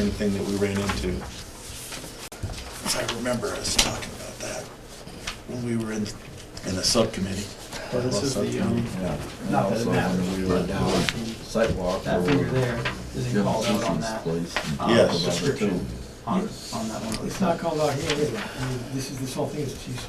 thing that we ran into. 'Cause I remember us talking about that when we were in, in the subcommittee. Well, this is the, um, Yeah. Not that it Also, matters. we were doing Sidewalk. that or- figure there isn't Yeah, called out on Cece's that, place and uh, talk about it description. too. on, on that one. It's not called out here either. I mean, This is, this whole thing is TC,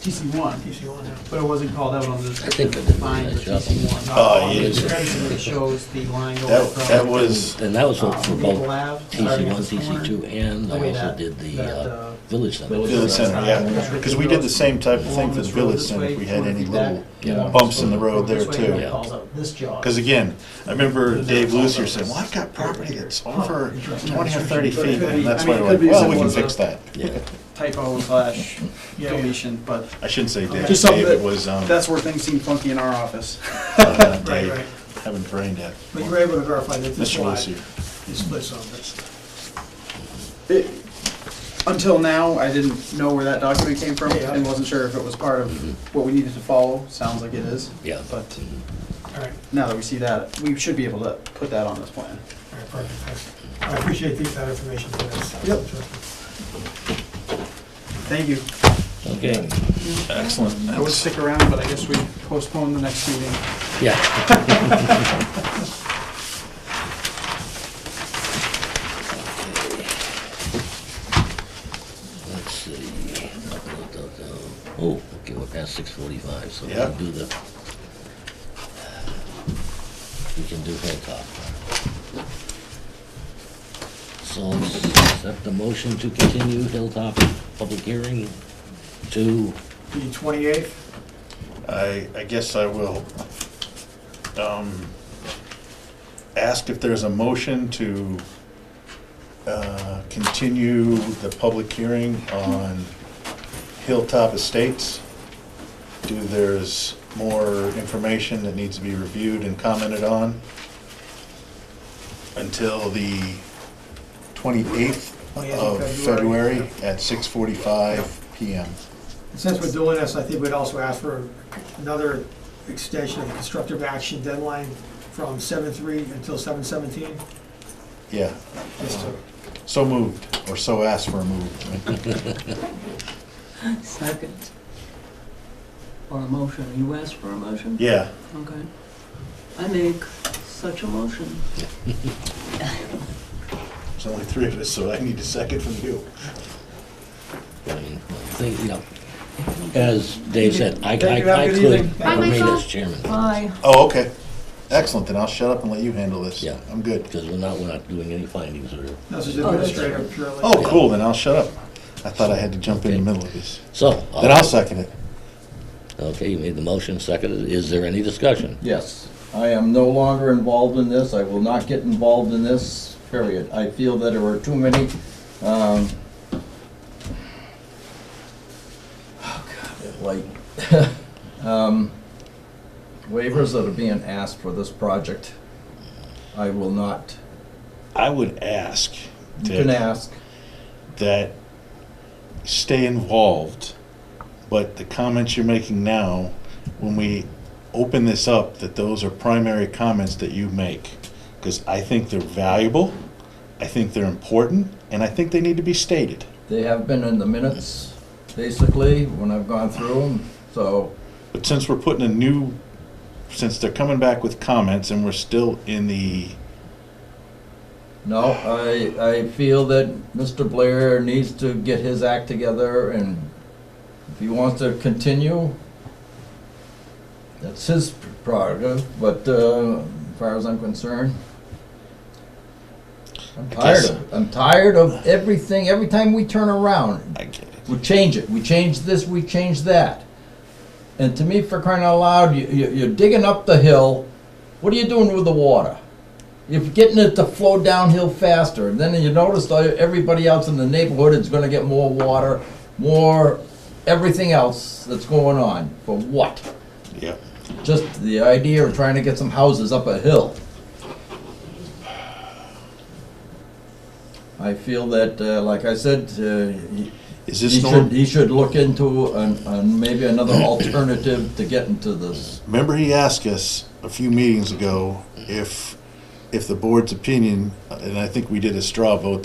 TC one, TC one now. but it wasn't called out on the description think that defined for they did a nice TC one. Oh, On the yeah. description, it shows the line going That, from. that was, And that was for uh, for Maple both Ave, starting TC at one, this corner. TC two, and The I way also that- did the that, uh, uh, village center. village center, yeah, because we did the same type of thing for the village center if we had any little bumps in the road there too. Yeah. This jog. Because again, I remember Dave Lucier saying, well, I've got property that's over twenty or thirty feet, and that's why we're like, well, we can fix uh, that. Yeah, Typo slash deletion, but I shouldn't say Dave, Just something Dave, it that- was, um, that's where things seem funky in our office. uh, Right, Dave, right. having brain death. But you were able to verify that this Mr. lot Lucier. is split zone, that's, It- Until now, I didn't know where that document came from Yeah. and wasn't sure if it was part of what we needed to follow. Sounds like it is. yeah. But all right, now that we see that, we should be able to put that on this plan. all right, perfect, thanks. I appreciate the- that information. Yep. Thank you. Okay, Excellent. I would That's- stick around, but I guess we postpone the next meeting. yeah. Let's see. Oh, okay, we're past six forty-five, so we Yeah. can do the, we can do Hilltop. So accept the motion to continue Hilltop public hearing to, The twenty-eighth, I, I guess I will, um, ask if there's a motion to, uh, continue the public hearing on Hilltop Estates. Do there's more information that needs to be reviewed and commented on until the twenty-eighth Oh, of yeah, February. February at six forty-five PM. since we're doing this, I think we'd also ask for another extension of the constructive action deadline from seven-three until seven-seventeen, Yeah, just to So moved, or so asked for a move. Second. Or a motion, you asked for a motion? Yeah, Okay. I make such a motion. there's only three of us, so I need a second from you. I mean, think, you know, as Dave said, I, Thank you, I, I have a good could evening. Bye, remain Michael. as chairman. Aye. Oh, okay. Excellent, then I'll shut up and let you handle this. Yeah. I'm good. Because we're not, we're not doing any findings or, This is Oh, that's- administrative purely. Oh, cool, then I'll shut up. I thought I had to jump in the Okay. middle of this. so. Then I'll second it. Okay, you made the motion, seconded. Is there any discussion? Yes, I am no longer involved in this, I will not get involved in this, period. I feel that there are too many, um, oh God, like, um, waivers that are being asked for this project. I will not, I would ask you can that- ask, that stay involved, but the comments you're making now, when we open this up, that those are primary comments that you make. Because I think they're valuable, I think they're important, and I think they need to be stated. they have been in the minutes, basically, when I've gone through them, so But since we're putting a new, since they're coming back with comments and we're still in the, No, I, I feel that Mr. Blair needs to get his act together and if he wants to continue, that's his prerogative, but, uh, as far as I'm concerned, I'm I guess- tired of, I'm tired of everything, every time we turn around, I get it. we change it, we change this, we change that. And to me, for crying out loud, you, you- you're digging up the hill, what are you doing with the water? You're getting it to flow downhill faster, and then you notice that everybody else in the neighborhood is gonna get more water, more everything else that's going on, for what? Yep. Just the idea of trying to get some houses up a hill. I feel that, uh, like I said, uh, y- Is he this should, norm, he should look into an, an, maybe another alternative to get into this. remember he asked us a few meetings ago if, if the board's opinion, and I think we did a straw vote